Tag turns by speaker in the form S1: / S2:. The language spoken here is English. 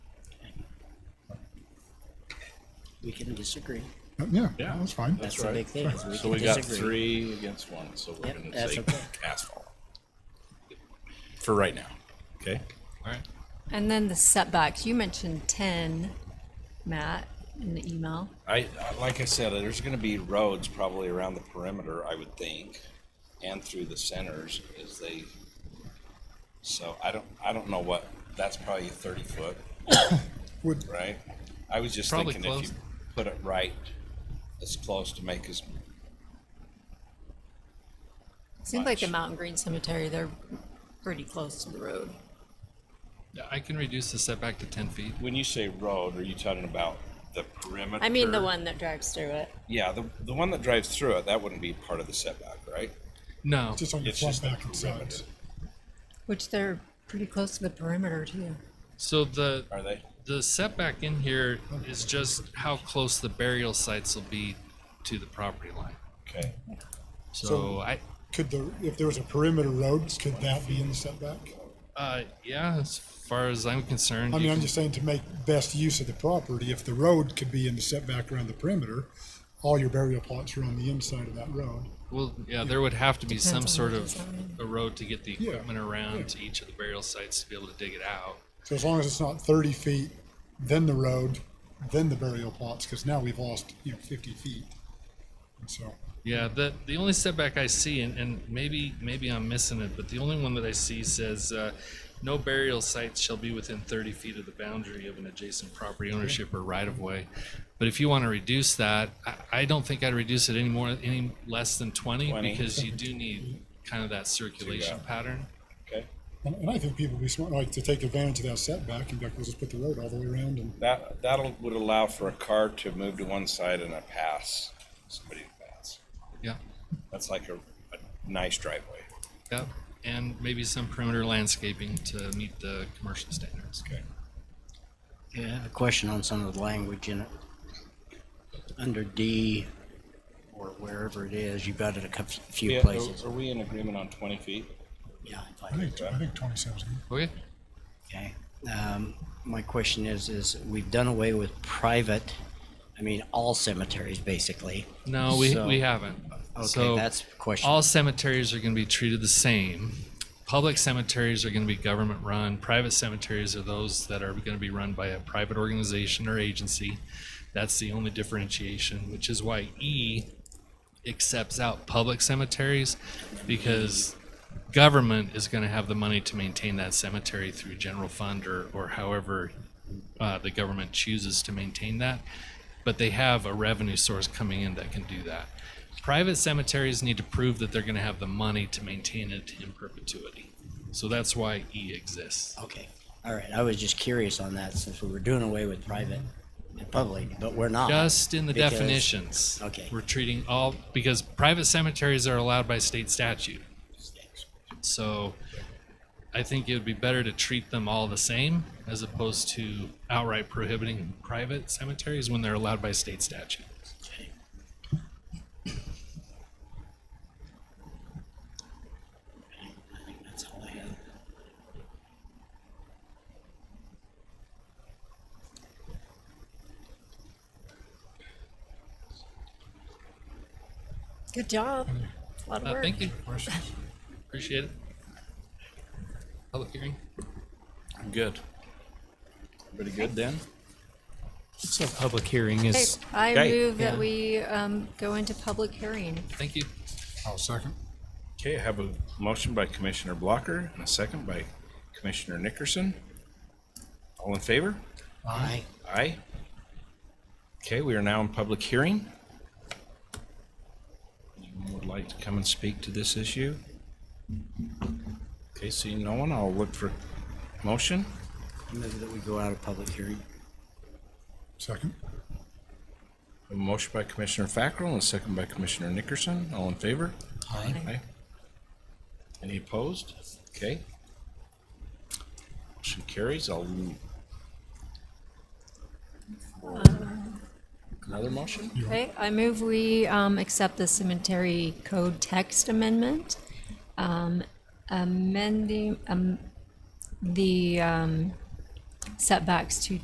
S1: We can disagree.
S2: Uh, Yeah,
S3: Yeah.
S2: that's fine.
S1: That's the big thing, is we
S3: So
S1: can
S3: we got
S1: disagree.
S3: three against one, so we're
S1: Yep,
S3: gonna
S1: that's
S3: take
S1: okay.
S3: asphalt. For right now. Okay? Alright.
S4: And then the setbacks, you mentioned ten, Matt, in the email.
S3: I, I- like I said, there's gonna be roads probably around the perimeter, I would think, and through the centers as they, so I don't, I don't know what, that's probably a thirty foot,
S2: Would,
S3: right? I was just
S5: Probably
S3: thinking if you
S5: close.
S3: put it right, as close to make as,
S4: Seems like the
S3: Much.
S4: Mountain Green Cemetery, they're pretty close to the road.
S5: Yeah, I can reduce the setback to ten feet.
S3: when you say road, are you talking about the perimeter?
S4: I mean, the one that drives through it.
S3: Yeah, the, the one that drives through it, that wouldn't be part of the setback, right?
S5: No,
S2: just on the
S3: It's just
S2: front,
S3: the
S2: back, and sides.
S3: perimeter.
S4: Which they're pretty close to the perimeter too.
S5: so the,
S3: Are they?
S5: the setback in here is just how close the burial sites will be to the property line.
S3: Okay.
S5: So I,
S2: Could the, if there was a perimeter road, could that be in the setback?
S5: uh, yeah, as far as I'm concerned.
S2: I
S5: you
S2: mean, I'm
S5: can-
S2: just saying to make best use of the property, if the road could be in the setback around the perimeter, all your burial plots are on the inside of that road.
S5: Well, yeah, there would have to be some
S4: Depends on
S5: sort
S4: the
S5: of
S4: design.
S5: a road to get the
S2: Yeah,
S5: equipment
S2: yeah.
S5: around to each of the burial sites to be able to dig it out.
S2: So as long as it's not thirty feet, then the road, then the burial plots, because now we've lost, you know, fifty feet. And so,
S5: Yeah, the the only setback I see, and, and maybe maybe I'm missing it, but the only one that I see says uh, no burial sites shall be within 30 feet of the boundary of an adjacent property ownership or right of way. But if you want to reduce that, I, I don't think I'd reduce it any more any less than 20,
S3: 20.
S5: because you do need kind of that circulation
S3: Yeah.
S5: pattern.
S3: Okay.
S2: and, and I think people would be smart, like, to take advantage of that setback and be like, we'll just put the road all the way around and
S3: That, that'll, would allow for a car to move to one side and a pass, somebody to pass.
S5: Yeah,
S3: That's like a, a nice driveway.
S5: yeah, and maybe some perimeter landscaping to meet the commercial standards.
S3: Okay.
S1: Yeah, I have a question on some of the language in it. Under D, or wherever it is, you've got it a cou- few
S3: Yeah,
S1: places.
S3: are, are we in agreement on twenty feet?
S1: Yeah, I
S2: I
S1: thought-
S2: think, I think twenty-seven's good.
S5: Okay.
S1: okay. Um, My question is, is we've done away with private, I mean, all cemeteries, basically.
S5: No, we,
S1: So-
S5: we haven't.
S1: Okay,
S5: so
S1: that's the question.
S5: All cemeteries are going to be treated the same. Public cemeteries are going to be government run. Private cemeteries are those that are going to be run by a private organization or agency. That's the only differentiation, which is why E accepts out public cemeteries because government is going to have the money to maintain that cemetery through general fund or, or however uh, the government chooses to maintain that. But they have a revenue source coming in that can do that. Private cemeteries need to prove that they're going to have the money to maintain it in perpetuity. So that's why E exists.
S1: Okay, all right, I was just curious on that, since we were doing away with private and public, but we're not.
S5: Just in the
S1: Because-
S5: definitions.
S1: okay.
S5: We're treating all, because private cemeteries are allowed by state statute. So I think it would be better to treat them all the same as opposed to outright prohibiting private cemeteries when they're allowed by state statute.
S1: Okay. I think that's all I have.
S4: Good job. A lot of
S5: Uh,
S4: work.
S5: thank you. Appreciate it. Public hearing.
S3: I'm good. Pretty good then?
S6: So public hearing
S4: Okay,
S6: is,
S4: I
S3: Okay.
S4: move that
S6: Yeah.
S4: we um, go into public hearing.
S5: Thank you.
S2: I'll second.
S3: Okay, I have a motion by Commissioner Blocker and a second by Commissioner Nickerson. All in favor?
S1: Aye.
S3: Aye. Okay, we are now in public hearing. Anyone would like to come and speak to this issue? Okay, seeing no one, I'll look for motion.
S1: I Move that we go out of public hearing.
S2: Second.
S3: A motion by Commissioner Fackrell and a second by Commissioner Nickerson. All in favor?
S1: Aye.
S3: Aye. Any opposed? Okay. Motion carries. I'll move. for Another motion?
S4: Okay, I move we um, accept the cemetery code text amendment. um, Amending um, the um, setbacks to